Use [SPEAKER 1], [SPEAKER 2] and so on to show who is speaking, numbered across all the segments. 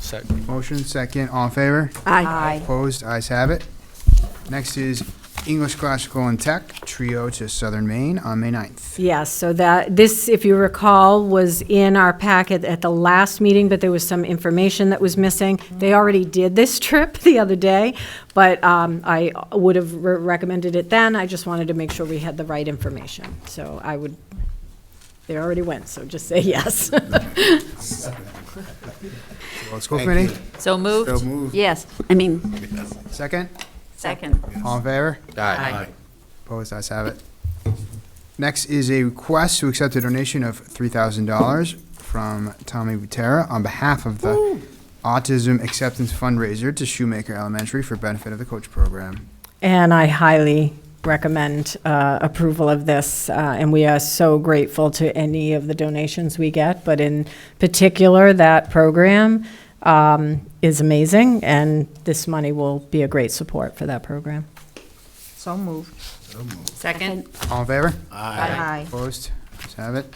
[SPEAKER 1] Second.
[SPEAKER 2] Motion second, all in favor?
[SPEAKER 3] Aye.
[SPEAKER 2] Opposed, ayes have it. Next is English Classical and Tech Trio to Southern Maine on May 9th.
[SPEAKER 3] Yes, so that, this, if you recall, was in our packet at the last meeting, but there was some information that was missing. They already did this trip the other day, but um, I would have re- recommended it then. I just wanted to make sure we had the right information. So I would, they already went, so just say yes.
[SPEAKER 2] Well, School Committee,
[SPEAKER 4] So moved?
[SPEAKER 2] So moved.
[SPEAKER 4] Yes, I mean,
[SPEAKER 2] second,
[SPEAKER 4] second.
[SPEAKER 2] all in favor?
[SPEAKER 1] Aye.
[SPEAKER 2] Opposed, ayes have it. Next is a request to accept a donation of $3,000 from Tommy Butera on behalf of the Autism Acceptance Fundraiser to Shoemaker Elementary for benefit of the coach program.
[SPEAKER 3] And I highly recommend uh, approval of this, uh, and we are so grateful to any of the donations we get, but in particular, that program um, is amazing, and this money will be a great support for that program.
[SPEAKER 5] So moved.
[SPEAKER 4] Second?
[SPEAKER 2] All in favor?
[SPEAKER 5] Aye.
[SPEAKER 2] Opposed? Let's have it.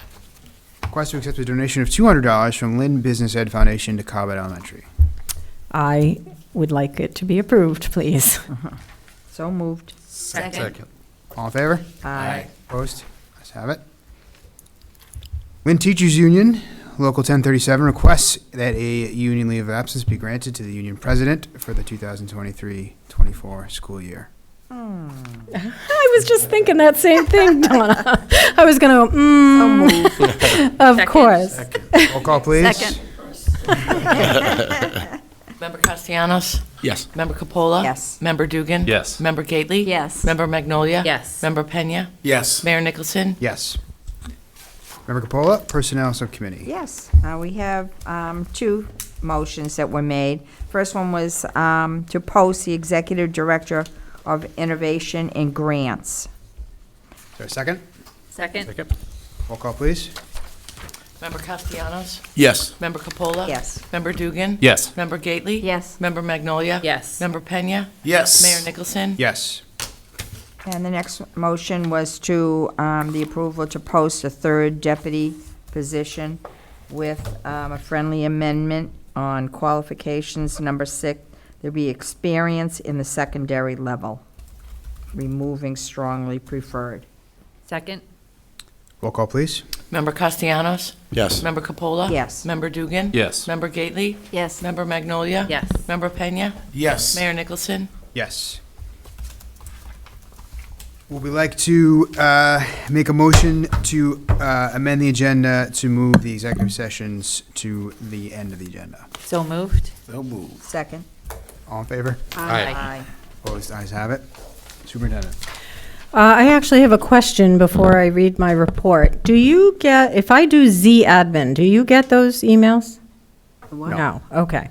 [SPEAKER 2] Request to accept a donation of $200 from Lynn Business Ed Foundation to Cobbett Elementary.
[SPEAKER 3] I would like it to be approved, please.
[SPEAKER 5] So moved.
[SPEAKER 4] Second.
[SPEAKER 2] All in favor?
[SPEAKER 5] Aye.
[SPEAKER 2] Opposed? Let's have it. Lynn Teachers Union, Local 1037, requests that a union leave of absence be granted to the union president for the 2023-24 school year.
[SPEAKER 3] I was just thinking that same thing, Donna. I was going to, mm, of
[SPEAKER 4] Second.
[SPEAKER 3] course.
[SPEAKER 2] Roll call, please.
[SPEAKER 4] Second.
[SPEAKER 6] Member Castellanos?
[SPEAKER 1] Yes.
[SPEAKER 6] Member Capola?
[SPEAKER 5] Yes.
[SPEAKER 6] Member Dugan?
[SPEAKER 1] Yes.
[SPEAKER 6] Member Gately?
[SPEAKER 4] Yes.
[SPEAKER 6] Member Magnolia?
[SPEAKER 4] Yes.
[SPEAKER 6] Member Pena?
[SPEAKER 1] Yes.
[SPEAKER 6] Mayor Nicholson?
[SPEAKER 2] Yes. Member Capola, Personnel Subcommittee.
[SPEAKER 5] Yes, uh, we have um, two motions that were made. First one was um, to post the Executive Director of Innovation and Grants.
[SPEAKER 2] Is there a second?
[SPEAKER 4] Second?
[SPEAKER 2] Roll call, please.
[SPEAKER 6] Member Castellanos?
[SPEAKER 1] Yes.
[SPEAKER 6] Member Capola?
[SPEAKER 5] Yes.
[SPEAKER 6] Member Dugan?
[SPEAKER 1] Yes.
[SPEAKER 6] Member Gately?
[SPEAKER 4] Yes.
[SPEAKER 6] Member Magnolia?
[SPEAKER 4] Yes.
[SPEAKER 6] Member Pena?
[SPEAKER 1] Yes.
[SPEAKER 6] Mayor Nicholson?
[SPEAKER 2] Yes.
[SPEAKER 5] And the next motion was to, um, the approval to post a third deputy position with, um, a friendly amendment on qualifications, number six, there be experience in the secondary level, removing strongly preferred.
[SPEAKER 4] Second?
[SPEAKER 2] Roll call, please.
[SPEAKER 6] Member Castellanos?
[SPEAKER 1] Yes.
[SPEAKER 6] Member Capola?
[SPEAKER 5] Yes.
[SPEAKER 6] Member Dugan?
[SPEAKER 1] Yes.
[SPEAKER 6] Member Gately?
[SPEAKER 4] Yes.
[SPEAKER 6] Member Magnolia?
[SPEAKER 4] Yes.
[SPEAKER 6] Member Pena?
[SPEAKER 1] Yes.
[SPEAKER 6] Mayor Nicholson?
[SPEAKER 2] Yes. Would we like to uh, make a motion to uh, amend the agenda to move the executive sessions to the end of the agenda?
[SPEAKER 4] So moved?
[SPEAKER 5] Second?
[SPEAKER 2] All in favor?
[SPEAKER 5] Aye.
[SPEAKER 2] Opposed? Ayes have it. Superintendent?
[SPEAKER 3] Uh, I actually have a question before I read my report. Do you get, if I do Z admin, do you get those emails? No, okay.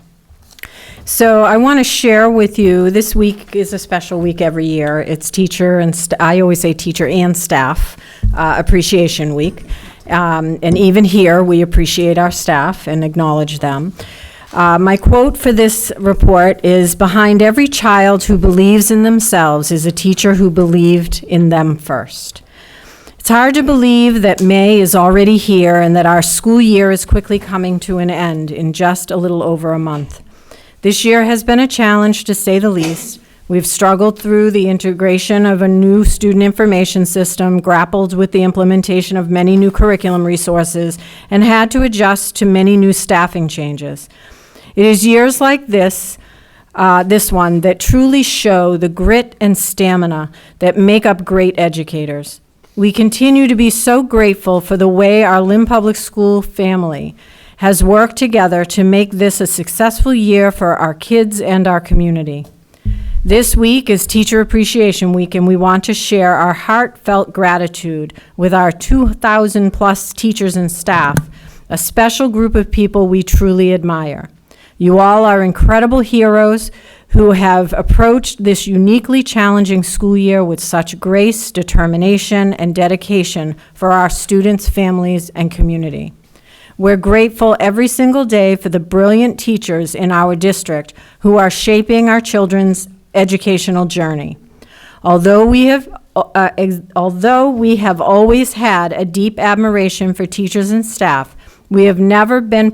[SPEAKER 3] So I want to share with you, this week is a special week every year. It's teacher and, st- I always say teacher and staff uh, appreciation week. Um, And even here, we appreciate our staff and acknowledge them. Uh, My quote for this report is, "Behind every child who believes in themselves is a teacher who believed in them first." It's hard to believe that May is already here and that our school year is quickly coming to an end in just a little over a month. This year has been a challenge, to say the least. We've struggled through the integration of a new student information system, grappled with the implementation of many new curriculum resources, and had to adjust to many new staffing changes. It is years like this uh, this one that truly show the grit and stamina that make up great educators. We continue to be so grateful for the way our Lynn Public School family has worked together to make this a successful year for our kids and our community. This week is Teacher Appreciation Week, and we want to share our heartfelt gratitude with our 2,000-plus teachers and staff, a special group of people we truly admire. You all are incredible heroes who have approached this uniquely challenging school year with such grace, determination, and dedication for our students, families, and community. We're grateful every single day for the brilliant teachers in our district who are shaping our children's educational journey. Although we have, uh, ex- although we have always had a deep admiration for teachers and staff, we have never been